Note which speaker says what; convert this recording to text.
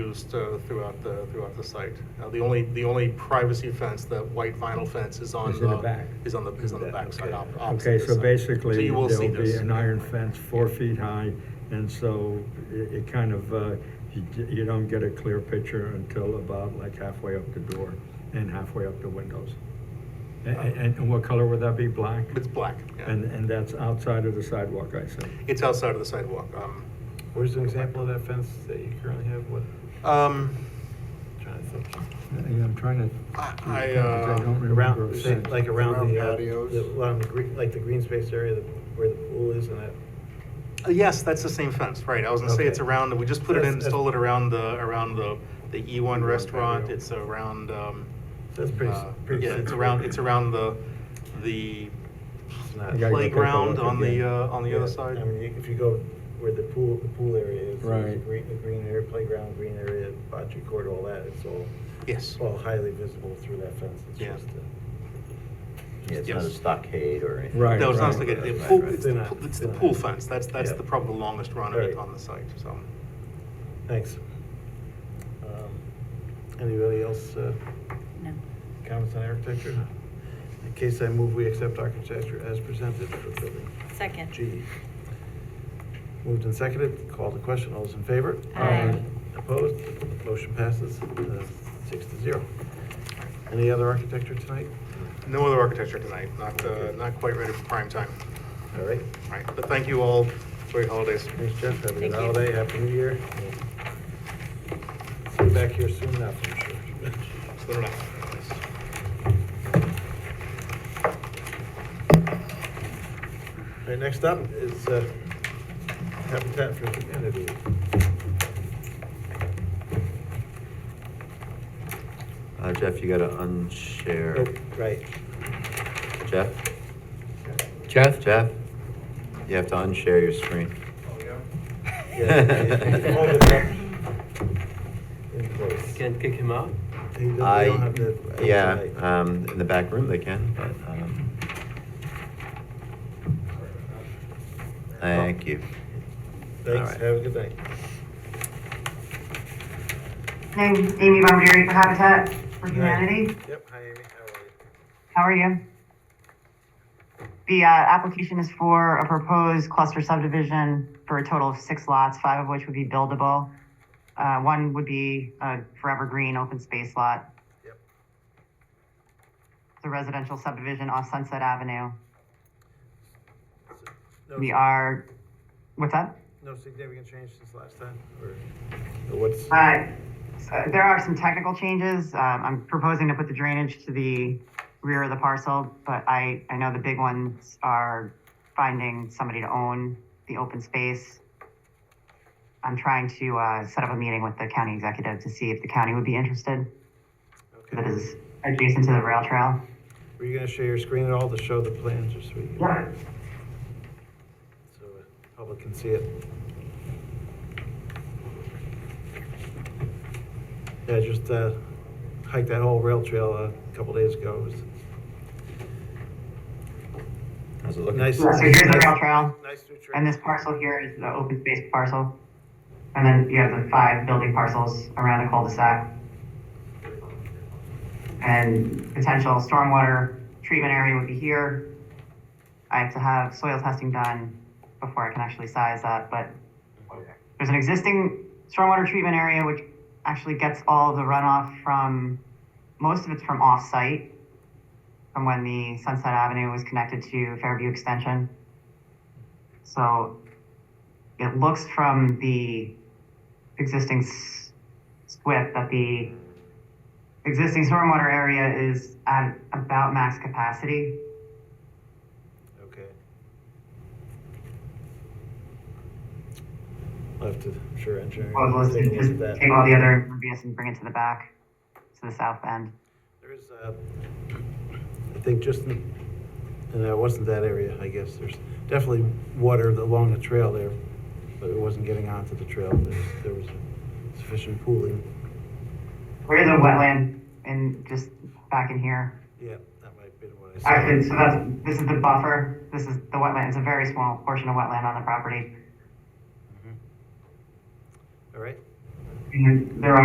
Speaker 1: used uh, throughout the, throughout the site. Now, the only, the only privacy fence, that white vinyl fence is on.
Speaker 2: Is in the
Speaker 1: uh,
Speaker 2: back.
Speaker 1: Is on the, is on the backside. op- opposite
Speaker 2: Okay,
Speaker 1: this
Speaker 2: so
Speaker 1: side. So
Speaker 2: basically,
Speaker 1: you will see
Speaker 2: there'll be
Speaker 1: this.
Speaker 2: an iron fence four feet high, and so it, it kind of, uh, you, d- you don't get a clear picture until about like halfway up the door and halfway up the windows. A- a- And, and what color would that be, black?
Speaker 1: It's black,
Speaker 2: And,
Speaker 1: yeah.
Speaker 2: and that's outside of the sidewalk, I see.
Speaker 1: It's outside of the sidewalk. um,
Speaker 3: Where's an example of that fence that you currently have? What,
Speaker 1: Um,
Speaker 3: trying to think.
Speaker 2: Yeah, I'm trying to.
Speaker 1: I-
Speaker 2: because
Speaker 1: I,
Speaker 2: I
Speaker 1: uh,
Speaker 2: don't remember a
Speaker 3: Around,
Speaker 2: fence.
Speaker 3: like around the, uh,
Speaker 4: Around patios.
Speaker 3: the- around the green, like the green space area that- where the pool is and that.
Speaker 1: Yes, that's the same fence, right. I was gonna say it's
Speaker 3: Okay.
Speaker 1: around, we just put it in,
Speaker 3: That's- that's-
Speaker 1: installed it around the, around the, the
Speaker 2: E
Speaker 1: E1
Speaker 3: E1
Speaker 1: restaurant.
Speaker 3: patio.
Speaker 1: It's around, um.
Speaker 3: That's pretty, s-
Speaker 1: uh,
Speaker 3: pretty.
Speaker 1: Yeah, it's around, it's around the, the
Speaker 3: It's
Speaker 2: I gotta go take a
Speaker 1: playground
Speaker 2: look
Speaker 1: on the,
Speaker 2: again.
Speaker 1: uh, on the
Speaker 3: Yeah,
Speaker 1: other side.
Speaker 3: I mean, if you go where the pool, the pool area is. there's a
Speaker 2: Right.
Speaker 3: Green, the green area, playground, green area, bocce court, all that, it's all,
Speaker 1: Yes.
Speaker 3: it's all highly visible through that fence. It's
Speaker 1: Yeah.
Speaker 3: just a-
Speaker 5: Yeah, it's not a
Speaker 1: Yes.
Speaker 5: stockade or anything.
Speaker 2: Right,
Speaker 1: No, it's not
Speaker 2: right.
Speaker 1: spaghetti. The
Speaker 5: Right,
Speaker 1: pool-
Speaker 5: right.
Speaker 1: It's the
Speaker 3: They're
Speaker 1: pool-
Speaker 3: not-
Speaker 1: it's the
Speaker 3: they're
Speaker 1: pool
Speaker 3: not.
Speaker 1: fence. That's, that's
Speaker 5: Yeah.
Speaker 1: the probably the longest run of it
Speaker 3: Right.
Speaker 1: on the site, so.
Speaker 3: Thanks. Um, Anybody else, uh,
Speaker 6: No.
Speaker 3: comments on architecture? In case I move, we accept architecture as presented for building
Speaker 6: Second.
Speaker 3: G. Moved and seconded, call to question, all those in favor?
Speaker 6: Aye.
Speaker 3: Opposed, motion passes, uh, six to zero. Any other architecture tonight?
Speaker 1: No other architecture tonight, not, uh, not quite ready for prime time.
Speaker 3: All right,
Speaker 1: All right, but thank you all. Enjoy your holidays.
Speaker 3: thanks Jeff, have a
Speaker 6: Thank
Speaker 3: good
Speaker 6: you.
Speaker 3: holiday, happy new year. See you back here soon enough, I'm sure.
Speaker 1: Slow it down.
Speaker 3: All right, next up is uh, Habitat for Humanity.
Speaker 5: Uh, Jeff, you gotta unshare.
Speaker 3: Nope, Oh, Right.
Speaker 5: Jeff? Jeff? Jeff? You have to unshare your screen.
Speaker 3: Yeah, hold it up in place.
Speaker 7: Can't kick him out?
Speaker 3: They don't- they
Speaker 5: I,
Speaker 3: don't have the-
Speaker 5: yeah,
Speaker 3: tonight.
Speaker 5: um, in the back room they can, but, um. Thank you.
Speaker 3: Thanks,
Speaker 5: all right.
Speaker 3: have a good night.
Speaker 8: Hey, Amy Bombieri for Habitat for
Speaker 3: Good night.
Speaker 8: Humanity.
Speaker 3: Yep, hi Amy, how are you?
Speaker 8: How are you? The uh, application is for a proposed cluster subdivision for a total of six lots, five of which would be buildable. Uh, One would be a forever green open space lot.
Speaker 3: Yep.
Speaker 8: It's a residential subdivision off Sunset Avenue.
Speaker 3: No-
Speaker 8: We are, what's that?
Speaker 3: No significant change since last time, or or what's,
Speaker 8: Uh, so There are some technical changes. Um, I'm proposing to put the drainage to the rear of the parcel, but I, I know the big ones are finding somebody to own the open space. I'm trying to uh, set up a meeting with the county executive to see if the county would be interested. That
Speaker 3: okay.
Speaker 8: is adjacent to the rail trail.
Speaker 3: Were you gonna share your screen at all to show the plans, just so we?
Speaker 8: Yeah.
Speaker 3: So uh, public can see it. Yeah, I just uh, hiked that whole rail trail a couple days ago. It was
Speaker 5: How's it looking?
Speaker 3: nice.
Speaker 8: So here's the rail trail,
Speaker 3: Nice new trail.
Speaker 8: and this parcel here is the open space parcel. And then you have the five building parcels around the cul-de-sac. and potential stormwater treatment area would be here. I have to have soil testing done before I can actually size that, but there's an existing stormwater treatment area which actually gets all the runoff from, most of it's from off-site, from when the Sunset Avenue was connected to Fairview Extension. So it looks from the existing s- SWIP that the existing stormwater area is at about max capacity.
Speaker 3: Okay. I'll have to, I'm sure, engineering.
Speaker 8: Well,
Speaker 3: will
Speaker 8: let's
Speaker 3: take a look
Speaker 8: just
Speaker 3: at that.
Speaker 8: take all the other impervious and bring it to the back, to the south end.
Speaker 3: There's, uh, I think just, in- and it wasn't that area, I guess, there's definitely water along the trail there, but it wasn't getting onto the trail, there was, there was sufficient pooling.
Speaker 8: Where's the wetland and just back in here?
Speaker 3: Yeah, that might have been what I saw.
Speaker 8: Actually, so that's, this is the buffer, this is the wetland, it's a very small portion of wetland on the property.
Speaker 3: All right.
Speaker 8: And there